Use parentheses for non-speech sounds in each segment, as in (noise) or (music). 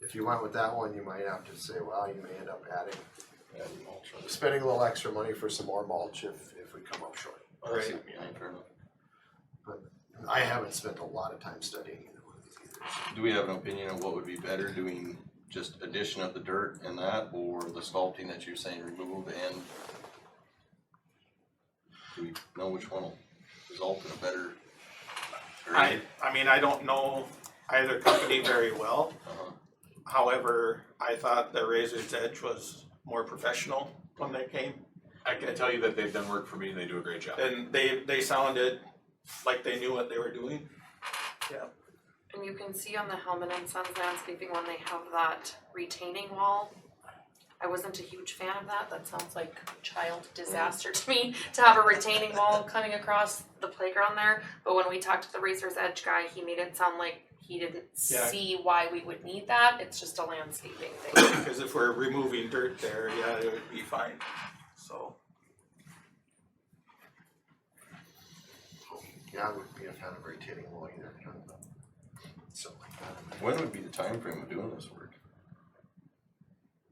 If you went with that one, you might have to say, well, you may end up adding, adding mulch on this. spending a little extra money for some more mulch if, if we come up short. Oh, that's- Right. yeah, fair enough. I haven't spent a lot of time studying either one of these either. Do we have an opinion on what would be better, doing just addition of the dirt and that, or the sculpting that you're saying remove and? Do we know which one will result in a better? or I, I mean, I don't know either company very well. Uh-huh. However, I thought the Razor's Edge was more professional when they came. I can tell you that they've done work for me and they do a great job. And they, they sounded like they knew what they were doing. And you can see on the Hellman and Sons landscaping when they have that retaining wall. I wasn't a huge fan of that, that sounds like child disaster to me, (laughs) to have a retaining wall (laughs) coming across the playground there. But when we talked to the Racers Edge guy, he made it sound like he didn't Yeah. see why we would need that, it's just a landscaping thing. (coughs) Because if we're removing dirt there, yeah, it would be fine, so. Yeah, I would be a fan of retaining wall either, kind of, something like that. When would be the time frame of doing this work?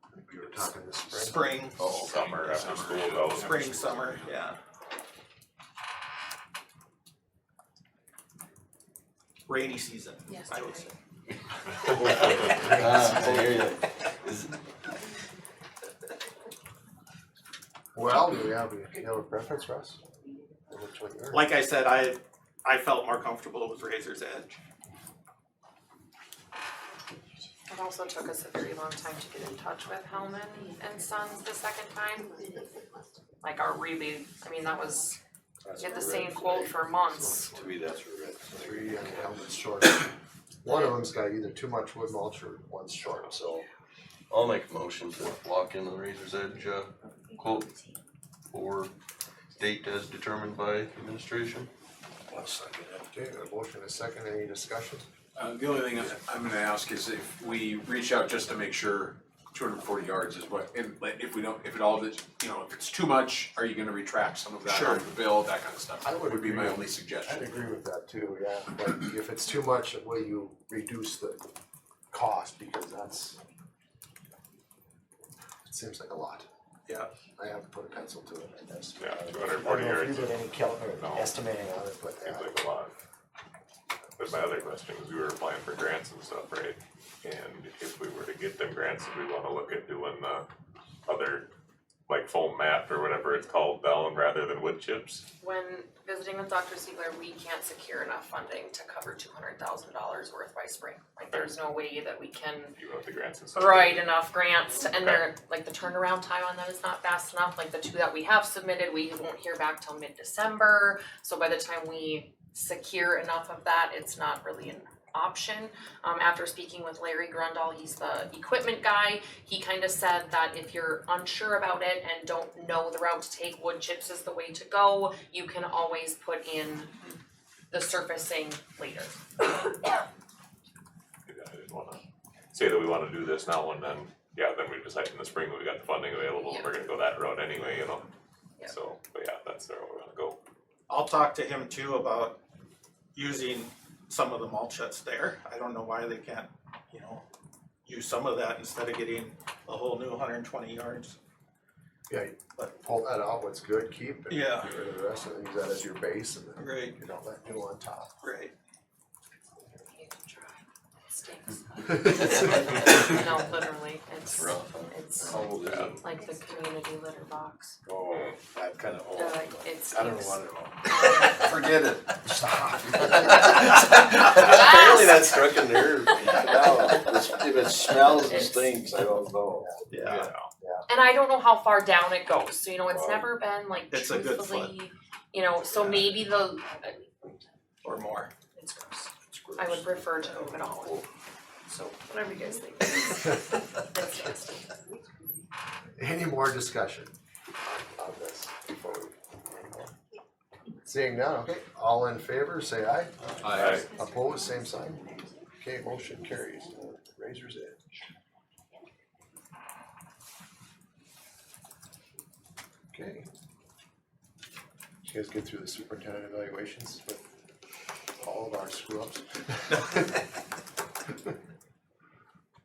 I think We were talking this spring. Spring, Oh, okay. (laughs) Summer after school yeah. goes. spring, summer, yeah. Rainy season, Yes, I would say. (laughs) Ah, I hear ya. Is- Well, do we have, do you have a preference, Russ? Or Which one you're? Like I said, I, I felt more comfortable with Razor's Edge. It also took us a very long time to get in touch with Hellman and Sons the second time. Like our rebate, I mean, that was, we had the same quote for months. To be that. Three and Hellman's short. One of them's got either too much wood mulch or one's short, so. I'll make a motion to lock in the Razor's Edge, uh, quote or date as determined by administration. Okay, a motion and a second, any discussion? Uh, the only thing I- I'm gonna ask is if we reach out just to make sure two hundred and forty yards is what, and like, if we don't, if it all, of it, you know, if it's too much, are you gonna retract some of that Sure. out of the bill, that kind of stuff? I would Would be my agree. only suggestion. I'd agree with that too, yeah, but if it's too much, will you reduce the cost, because that's. It seems like a lot, Yeah, I have to put a pencil to it, I guess. Yeah, two hundred and forty I don't know if yards, you did any cal- No. or estimating on it, but seems uh, like a lot. But my other question is, we were applying for grants and stuff, right? And if we were to get them grants, if we wanna look at doing the other, like foam mat or whatever it's called, down rather than wood chips? When visiting with Dr. Siegler, we can't secure enough funding to cover two hundred thousand dollars worth by spring. Like, there's no way that we can You want the grants and stuff? write enough grants to, and they're, like, the turnaround time on that is not fast enough. Like, the two that we have submitted, we won't hear back till mid-December. So by the time we secure enough of that, it's not really an option. Um, after speaking with Larry Grundall, he's the equipment guy, he kind of said that if you're unsure about it and don't know the route to take, wood chips is the way to go. You can always put in the surfacing later. Yeah, I didn't wanna say that we wanna do this now and then, yeah, then we decide in the spring, we got the funding available, we're gonna go that route anyway, you know? Yeah. So, but yeah, that's where we're gonna go. I'll talk to him too about using some of the mulch that's there. I don't know why they can't, you know, use some of that instead of getting a whole new hundred and twenty yards. yeah, you pull that out, what's good, keep and Yeah. get rid of the rest of it, use that as your base and then Great, you don't let new on (laughs) top. great. Stinks. It's No, literally, it's, Rough, huh? it's How old is it? like the community litter box. Oh, that kind of They're like, it's. I don't know it's- what (laughs) it. Forget it. Apparently that (laughs) struck a nerve. If it smells and stinks, I don't know. Yeah, And I don't know how far down it goes, so you know, it's Wow. never been like It's a good foot. truthfully, you know, so maybe the, or more. it's gross. I would prefer to open all of it. So whatever you guys (laughs) think. That's disgusting. Any more discussion on on this before we? Seeing none, okay, all in favor, say aye. I, Opposed, same sign. Okay, motion carries. Razor's Edge. Okay. Did you guys get through the superintendent evaluations with all of our screw ups?